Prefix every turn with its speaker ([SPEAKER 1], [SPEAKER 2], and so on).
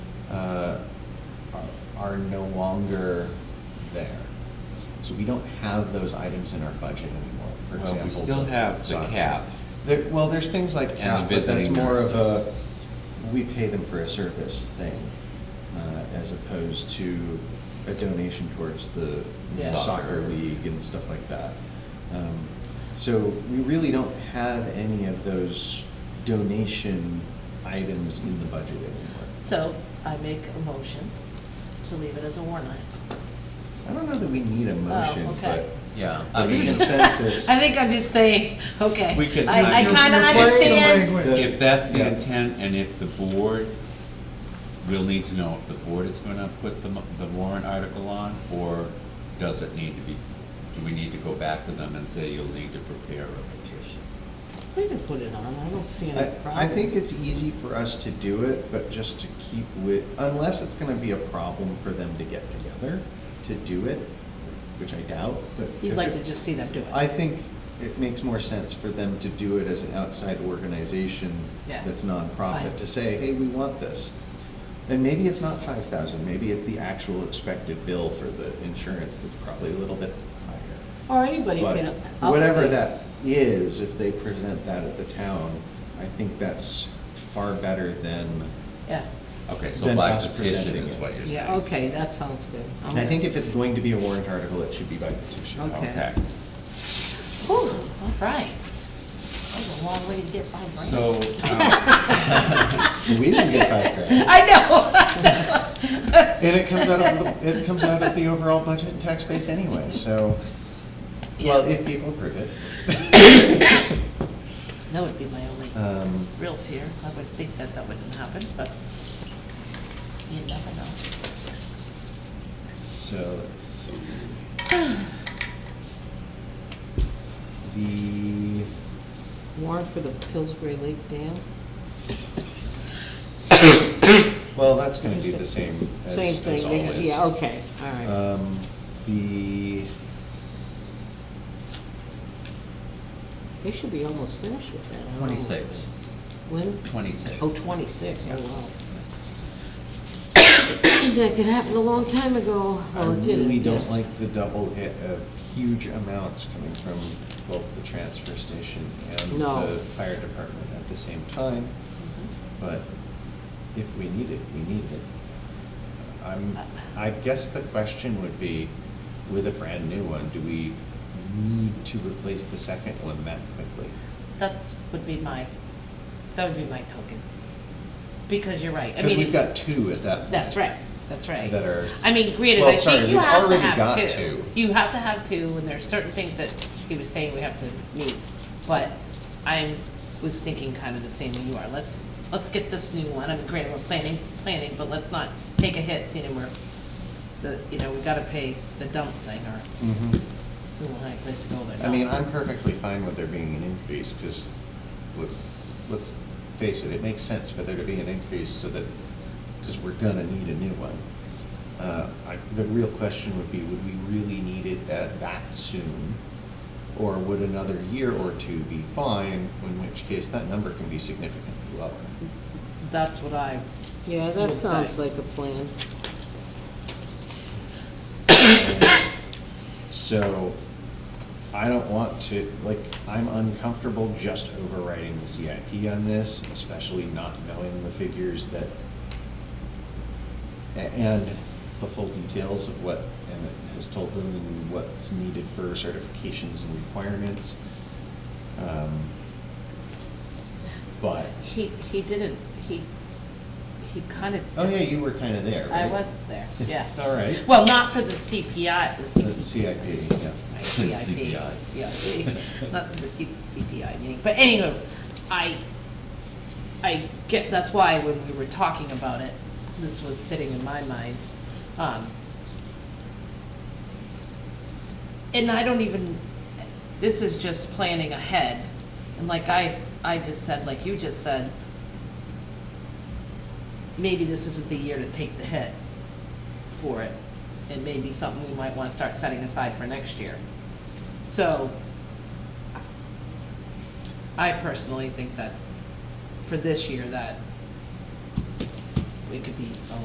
[SPEAKER 1] uh, are no longer there. So we don't have those items in our budget anymore, for
[SPEAKER 2] Well, we
[SPEAKER 1] example.
[SPEAKER 2] still have the
[SPEAKER 1] soccer.
[SPEAKER 2] cap.
[SPEAKER 1] There, well, there's things like
[SPEAKER 2] And the
[SPEAKER 1] cap, but that's
[SPEAKER 2] visiting
[SPEAKER 1] more of a,
[SPEAKER 2] nurses.
[SPEAKER 1] we pay them for a service thing, uh, as opposed to a donation towards the
[SPEAKER 2] Yeah.
[SPEAKER 1] soccer
[SPEAKER 2] Soccer.
[SPEAKER 1] league and stuff like that. Um, So we really don't have any of those donation items in the budget anymore.
[SPEAKER 3] So I make a motion to leave it as a warrant item.
[SPEAKER 1] I don't know that we need a motion, but.
[SPEAKER 3] Oh, okay.
[SPEAKER 2] Yeah.
[SPEAKER 1] I
[SPEAKER 2] I
[SPEAKER 1] mean,
[SPEAKER 2] mean,
[SPEAKER 1] consensus.
[SPEAKER 3] I think I'm just saying, okay.
[SPEAKER 2] We could-
[SPEAKER 3] I, I
[SPEAKER 2] You're-
[SPEAKER 3] kinda
[SPEAKER 4] you're playing the
[SPEAKER 3] understand.
[SPEAKER 4] language.
[SPEAKER 2] if that's the
[SPEAKER 1] Yeah.
[SPEAKER 2] intent, and if the board, we'll need to know if the board is gonna put the, mo- the warrant article on, or does it need to be, do we need to go back to them and say you'll need to prepare a petition?
[SPEAKER 3] We can put it on, I don't see any
[SPEAKER 1] I,
[SPEAKER 3] problem.
[SPEAKER 1] I think it's easy for us to do it, but just to keep with, unless it's gonna be a problem for them to get together to do it, which I doubt, but.
[SPEAKER 3] You'd
[SPEAKER 1] if
[SPEAKER 3] like
[SPEAKER 1] it-
[SPEAKER 3] to just see them do it.
[SPEAKER 1] I think it makes more sense for them to do it as an outside organization
[SPEAKER 3] Yeah.
[SPEAKER 1] that's nonprofit,
[SPEAKER 3] Fine.
[SPEAKER 1] to say, hey, we want this. And maybe it's not five thousand, maybe it's the actual expected bill for the insurance that's probably a little bit higher.
[SPEAKER 3] Or anybody can.
[SPEAKER 1] But
[SPEAKER 3] up
[SPEAKER 1] whatever
[SPEAKER 3] it.
[SPEAKER 1] that is, if they present that at the town, I think that's far better than,
[SPEAKER 3] Yeah,
[SPEAKER 2] Okay, so
[SPEAKER 1] Then
[SPEAKER 2] by
[SPEAKER 1] us
[SPEAKER 2] petition
[SPEAKER 1] presenting
[SPEAKER 2] is
[SPEAKER 1] it.
[SPEAKER 2] what you're saying.
[SPEAKER 3] yeah, okay, that sounds good.
[SPEAKER 1] and I think if it's going to be a warrant article, it should be by petition.
[SPEAKER 3] Okay.
[SPEAKER 2] Okay,
[SPEAKER 3] Whew, all right. That was a long way to get my brain.
[SPEAKER 2] so, um,
[SPEAKER 1] We didn't get five grand,
[SPEAKER 3] I know.
[SPEAKER 1] and it comes out of, the- it comes out of the overall budget and tax base anyway, so, well,
[SPEAKER 3] Yeah.
[SPEAKER 1] if people approve it.
[SPEAKER 3] That would be my only
[SPEAKER 1] Um,
[SPEAKER 3] real fear. I would think that that wouldn't happen, but you never know.
[SPEAKER 1] So let's see. The,
[SPEAKER 3] Warrant for the Pillsbury Lake Dam?
[SPEAKER 1] well, that's gonna be the same as,
[SPEAKER 3] Same
[SPEAKER 1] as
[SPEAKER 3] thing,
[SPEAKER 1] always.
[SPEAKER 3] yeah, okay, all right.
[SPEAKER 1] Um, the,
[SPEAKER 3] They should be almost finished with that. I don't know.
[SPEAKER 2] twenty-six,
[SPEAKER 3] When?
[SPEAKER 2] twenty-six.
[SPEAKER 3] Oh, twenty-six, oh, wow. That could happen a long time ago.
[SPEAKER 1] I
[SPEAKER 3] Well, Oh, it didn't,
[SPEAKER 1] really don't
[SPEAKER 3] yes.
[SPEAKER 1] like the double hit of huge amounts coming from both the transfer station and
[SPEAKER 3] No.
[SPEAKER 1] the fire department at the same time,
[SPEAKER 3] Mm-hmm.
[SPEAKER 1] but if we need it, we need it. I'm, I guess the question would be, with a brand new one, do we need to replace the second one that quickly?
[SPEAKER 3] That's, would be my, that would be my token. Because you're right. I
[SPEAKER 1] Because
[SPEAKER 3] mean,
[SPEAKER 1] we've got two at that point
[SPEAKER 3] That's right, that's right.
[SPEAKER 1] that are,
[SPEAKER 3] I mean, granted,
[SPEAKER 1] Well,
[SPEAKER 3] I
[SPEAKER 1] sorry,
[SPEAKER 3] think
[SPEAKER 1] we've
[SPEAKER 3] you have to
[SPEAKER 1] already got
[SPEAKER 3] have
[SPEAKER 1] two.
[SPEAKER 3] two. You have to have two, and there are certain things that he was saying we have to meet. But I was thinking kind of the same way you are. Let's, let's get this new one. I mean, granted, we're planning, planning, but let's not take a hit, seeing we're, the, you know, we gotta pay the dump thing, or
[SPEAKER 1] Mhm.
[SPEAKER 3] we won't have a place to go there.
[SPEAKER 1] I mean, I'm perfectly fine with there being an increase, because let's, let's face it, it makes sense for there to be an increase so that, because we're gonna need a new one. Uh, I, the real question would be, would we really need it at that soon? Or would another year or two be fine, in which case that number can be significantly lower?
[SPEAKER 3] That's what I,
[SPEAKER 4] Yeah,
[SPEAKER 3] Would
[SPEAKER 4] that
[SPEAKER 3] say.
[SPEAKER 4] sounds like a plan.
[SPEAKER 1] So, I don't want to, like, I'm uncomfortable just overriding the CIP on this, especially not knowing the figures that, a- and the full details of what Emmett has told them and what's needed for certifications and requirements. Um, But,
[SPEAKER 3] he, he didn't, he, he kinda
[SPEAKER 1] oh yeah,
[SPEAKER 3] just-
[SPEAKER 1] you were kinda there,
[SPEAKER 3] I
[SPEAKER 1] right?
[SPEAKER 3] was there, yeah.
[SPEAKER 1] All right.
[SPEAKER 3] Well, not for the CPI, the
[SPEAKER 1] The
[SPEAKER 3] CPI.
[SPEAKER 1] CIP, yeah.
[SPEAKER 3] Right, CIP,
[SPEAKER 2] CPI.
[SPEAKER 3] CIP, not the C- CPI meeting, but anyway, I, I get, that's why when we were talking about it, this was sitting in my mind. um, And I don't even, this is just planning ahead, and like I, I just said, like you just said, maybe this isn't the year to take the hit for it. It may be something we might want to start setting aside for next year. So I personally think that's, for this year, that it could be a